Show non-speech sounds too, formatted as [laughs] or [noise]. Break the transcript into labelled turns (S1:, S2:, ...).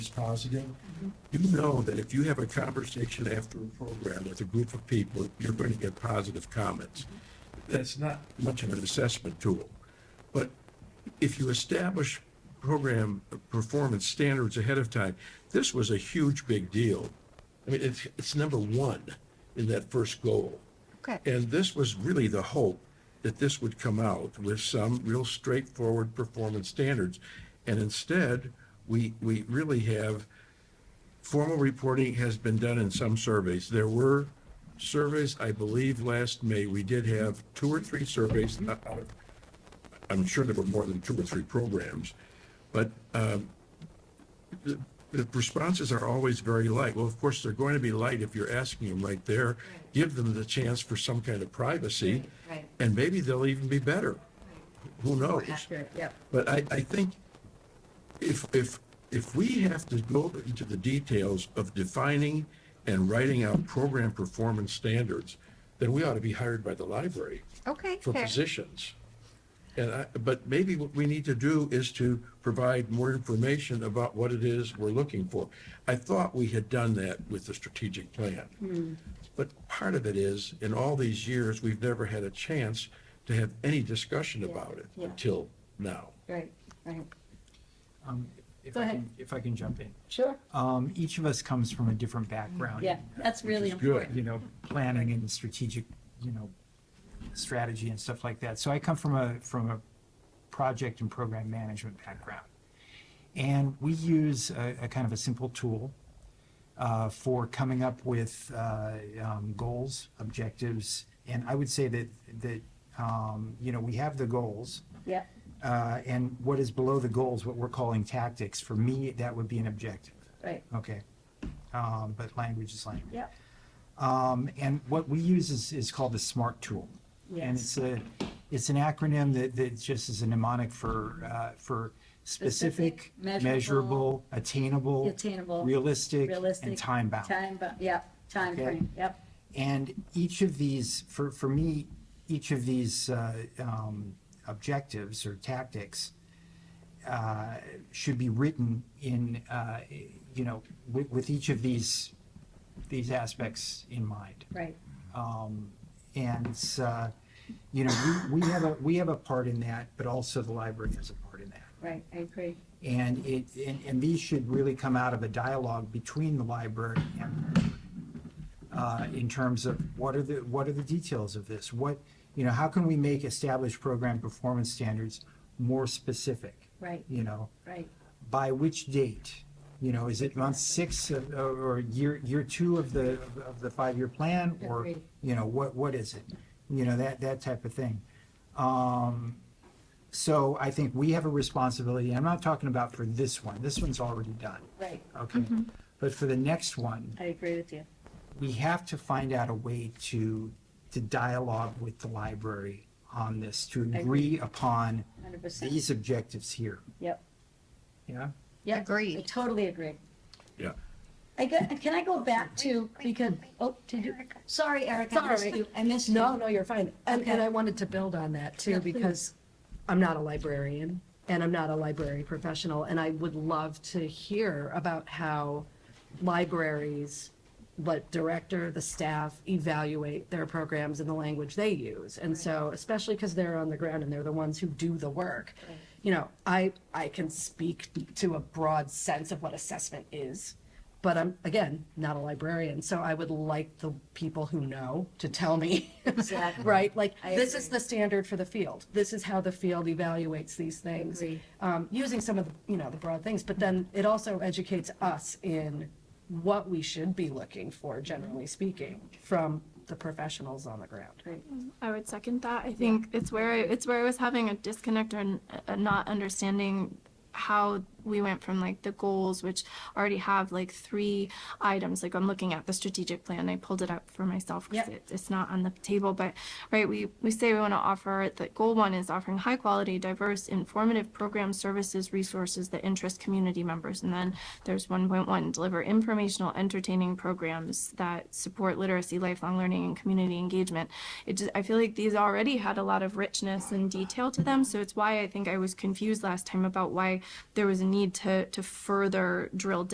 S1: is positive.
S2: Mm-hmm. You know that if you have a conversation after a program with a group of people, you're going to get positive comments.
S1: Mm-hmm.
S2: That's not much of an assessment tool. But if you establish program performance standards ahead of time, this was a huge big deal. I mean, it's, it's number one in that first goal.
S3: Okay.
S2: And this was really the hope that this would come out with some real straightforward performance standards. And instead, we, we really have formal reporting has been done in some surveys. There were surveys, I believe, last May, we did have two or three surveys. uh, uh, I'm sure there were more than two or three programs, but um, the the responses are always very light. Well, of course, they're going to be light if you're asking them right there. Give them the chance for some kind of privacy,
S3: Right, right.
S2: and maybe they'll even be better. Who knows?
S3: Accurate, yep.
S2: But I, I think if, if, if we have to go into the details of defining and writing out program performance standards, then we ought to be hired by the library
S3: Okay,
S2: for
S3: fair.
S2: positions. And I, but maybe what we need to do is to provide more information about what it is we're looking for. I thought we had done that with the strategic
S3: Hmm.
S2: plan. But part of it is, in all these years, we've never had a chance to have any discussion about it
S3: yeah.
S2: until now.
S3: Right, right.
S4: Um, If
S3: Go
S4: I
S3: ahead.
S4: can, if I can jump in.
S3: Sure.
S4: Um, Each of us comes from a different background.
S3: Yeah, that's really
S2: is good.
S3: important.
S4: You know, planning and strategic, you know, strategy and stuff like that. So I come from a, from a project and program management background. And we use a, a kind of a simple tool uh, for coming up with uh, um, goals, objectives. And I would say that, that, um, you know, we have the goals.
S3: Yeah,
S4: uh, and what is below the goals, what we're calling tactics, for me, that would be an objective.
S3: right,
S4: Okay. Um, but language is language.
S3: yeah,
S4: Um, and what we use is, is called the SMART tool. And
S3: Yes.
S4: it's a, it's an acronym that, that just is a mnemonic for, uh, for
S3: Specific,
S4: specific,
S3: measurable,
S4: measurable, attainable,
S3: attainable,
S4: realistic,
S3: realistic.
S4: and time bound.
S3: Time, bound. yeah, time
S4: Okay.
S3: frame, yep,
S4: And each of these, for, for me, each of these uh, um, objectives or tactics uh, should be written in, uh, you know, with, with each of these, these aspects in mind.
S3: right,
S4: Um, And, uh, you know, we, we have a, we have a part in that, but also the library has a part in that.
S3: right, I agree.
S4: And it, and, and these should really come out of a dialogue between the library and, uh, in terms of what are the, what are the details of this? What, you know, how can we make established program performance standards more specific?
S3: Right.
S4: You know,
S3: Right,
S4: by which date? You know, is it month six of- or year, year two of the, of the five-year plan? Or,
S3: Agreed.
S4: you know, what, what is it? You know, that, that type of thing. Um, So I think we have a responsibility, I'm not talking about for this one, this one's already done,
S3: right,
S4: okay? But for the next one,
S3: I agree with you.
S4: we have to find out a way to, to dialogue with the library on this, to
S3: agree.
S4: agree upon
S3: 100%.
S4: these objectives here,
S3: Yep,
S4: yeah?
S3: yep.
S5: Agreed.
S3: I totally agree.
S2: Yeah.
S3: I got, can I go back to, because, oh, did you, sorry, Eric, I missed
S5: Sorry.
S3: you, I missed you.
S5: No, no, you're fine. And,
S3: Okay.
S5: and I wanted to build on that
S3: Yeah,
S5: too,
S3: please.
S5: because I'm not a librarian and I'm not a library professional. And I would love to hear about how libraries, let director, the staff evaluate their programs and the language they use. And so, especially because they're on the ground and they're the ones who do the work. You know, I, I can speak to a broad sense of what assessment is, but I'm, again, not a librarian, so I would like the people who know to tell me. [laughs]
S3: Exactly.
S5: Right, like,
S3: I
S5: this is
S3: agree.
S5: the standard for the field, this is how the field evaluates these things.
S3: Agree.
S5: Um, using some of, the you know, the broad things, but then it also educates us in what we should be looking for, generally speaking, from the professionals on the ground.
S3: Right.
S6: I would second that. I think it's where I, it's where I was having a disconnect or n- a not understanding how we went from like the goals, which already have like three items. Like I'm looking at the strategic plan. I pulled it up for myself because
S3: Yep.
S6: it, it's not on the table. But right, we we say we want to offer that goal one is offering high quality, diverse, informative programs, services, resources that interest community members. And then there's 1.1 deliver informational, entertaining programs that support literacy, lifelong learning, and community engagement. It just I feel like these already had a lot of richness and detail to them, so it's why I think I was confused last time about why there was a need to to further drill down